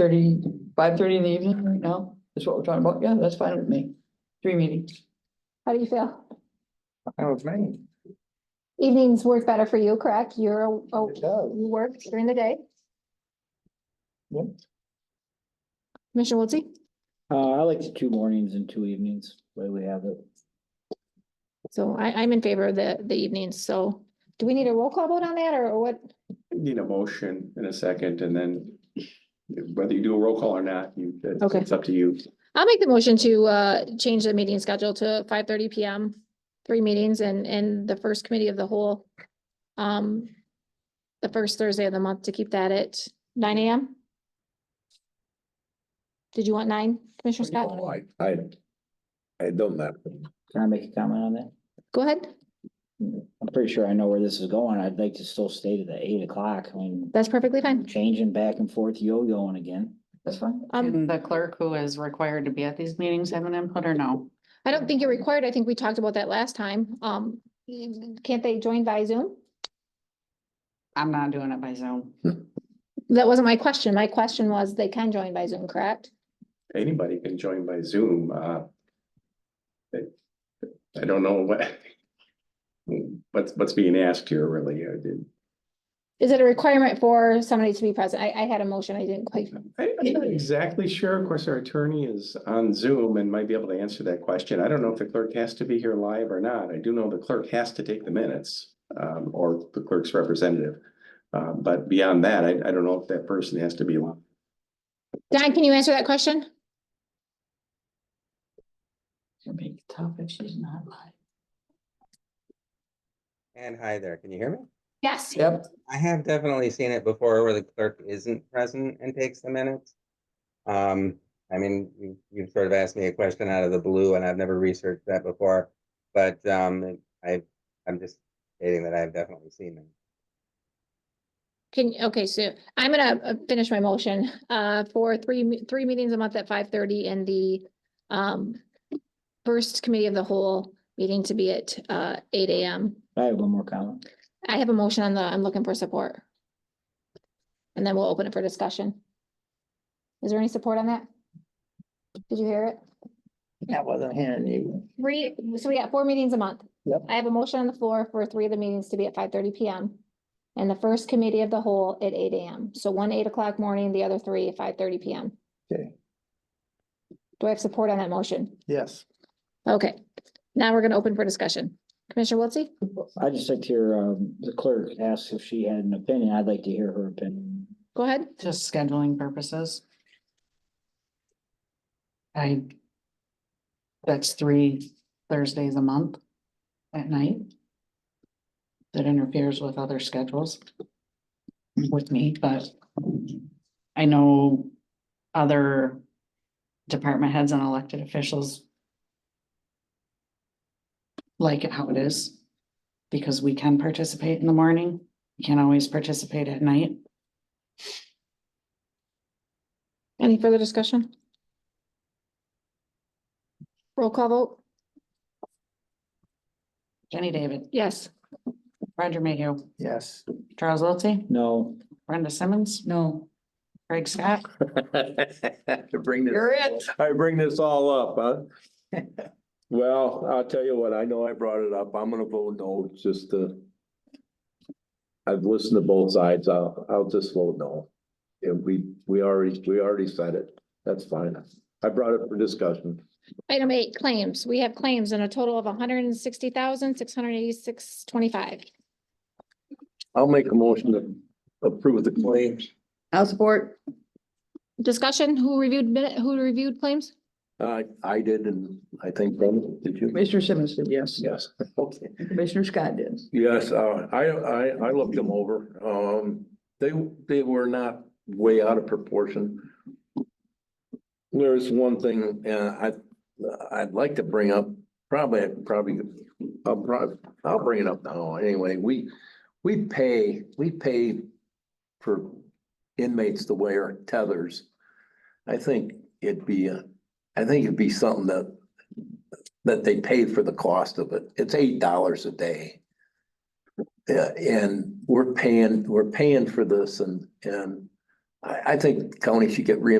thirty, five thirty in the evening right now, is what we're talking about, yeah, that's fine with me, three meetings. How do you feel? Fine with me. Evenings work better for you, correct? You're, a- oh, It you does. work during the day? Yep. Commissioner Wiltie? Uh, I like the two mornings and two evenings, the way we have it. So I, I'm in favor of the, the evenings, so do we need a roll call vote on that or what? Need a motion in a second and then whether you do a roll call or not, you, it's- Okay. it's up to you. I'll make the motion to, uh, change the meeting schedule to five thirty PM, three meetings and, and the first committee of the whole. Um, the first Thursday of the month to keep that at nine AM. Did you want nine, Commissioner Scott? Oh, I, I, I don't know. Can I make a comment on that? Go ahead. I'm pretty sure I know where this is going. I'd like to still stay to the eight o'clock. I mean, That's perfectly fine. changing back and forth, yo-yoing again. That's fine. Um, The clerk who is required to be at these meetings have an input or no? I don't think you're required. I think we talked about that last time. Um, can't they join by Zoom? I'm not doing it by Zoom. That wasn't my question. My question was they can join by Zoom, correct? Anybody can join by Zoom, uh. I I don't know what. What's, what's being asked here really, I did. Is it a requirement for somebody to be present? I, I had a motion. I didn't quite. I, I'm not exactly sure. Of course, our attorney is on Zoom and might be able to answer that question. I don't know if the clerk has to be here live or not. I do know the clerk has to take the minutes, um, or the clerk's representative. Uh, but beyond that, I, I don't know if that person has to be live. Don, can you answer that question? It's gonna be tough if she's not live. And hi there, can you hear me? Yes. Yep, I have definitely seen it before where the clerk isn't present and takes the minutes. Um, I mean, you, you've sort of asked me a question out of the blue and I've never researched that before. But, um, I, I'm just stating that I've definitely seen them. Can, okay, so I'm gonna uh, finish my motion, uh, for three, me- three meetings a month at five thirty and the, um, first committee of the whole meeting to be at, uh, eight AM. I have one more comment. I have a motion on the, I'm looking for support. And then we'll open it for discussion. Is there any support on that? Did you hear it? That wasn't hearing you. Three, so we got four meetings a month. Yep. I have a motion on the floor for three of the meetings to be at five thirty PM. And the first committee of the whole at eight AM. So one eight o'clock morning, the other three at five thirty PM. Okay. Do I have support on that motion? Yes. Okay, now we're gonna open for discussion. Commissioner Wiltie? I just like to hear, um, the clerk ask if she had an opinion. I'd like to hear her opinion. Go ahead. Just scheduling purposes. I. That's three Thursdays a month at night. That interferes with other schedules. With me, but I know other department heads and elected officials. Like it how it is, because we can participate in the morning, we can't always participate at night. Any further discussion? Roll call vote? Jenny David, Yes. Roger Mayhew, Yes. Charles Wiltie, No, Brenda Simmons, no, Craig Scott, To bring this. You're it. I bring this all up, huh? Well, I'll tell you what, I know I brought it up. I'm gonna vote no, just to. I've listened to both sides. I'll, I'll just vote no. And we, we already, we already said it. That's fine. I brought it for discussion. Item eight, claims. We have claims in a total of hundred and sixty thousand, six hundred and eighty-six, twenty-five. I'll make a motion to approve the claims. I'll support, Discussion, who reviewed minute, who reviewed claims? I, I did, and I think Brendan, did you? Commissioner Simmons did, yes, Yes. Okay. Commissioner Scott did. Yes, uh, I, I, I looked them over. Um, they, they were not way out of proportion. There's one thing, uh, I, I'd like to bring up, probably, probably, I'll, prob- I'll bring it up now. Anyway, we, we pay, we pay for inmates to wear tethers. I think it'd be, uh, I think it'd be something that, that they pay for the cost of it. It's eight dollars a day. Yeah, and we're paying, we're paying for this and, and I, I think county should get reimbursed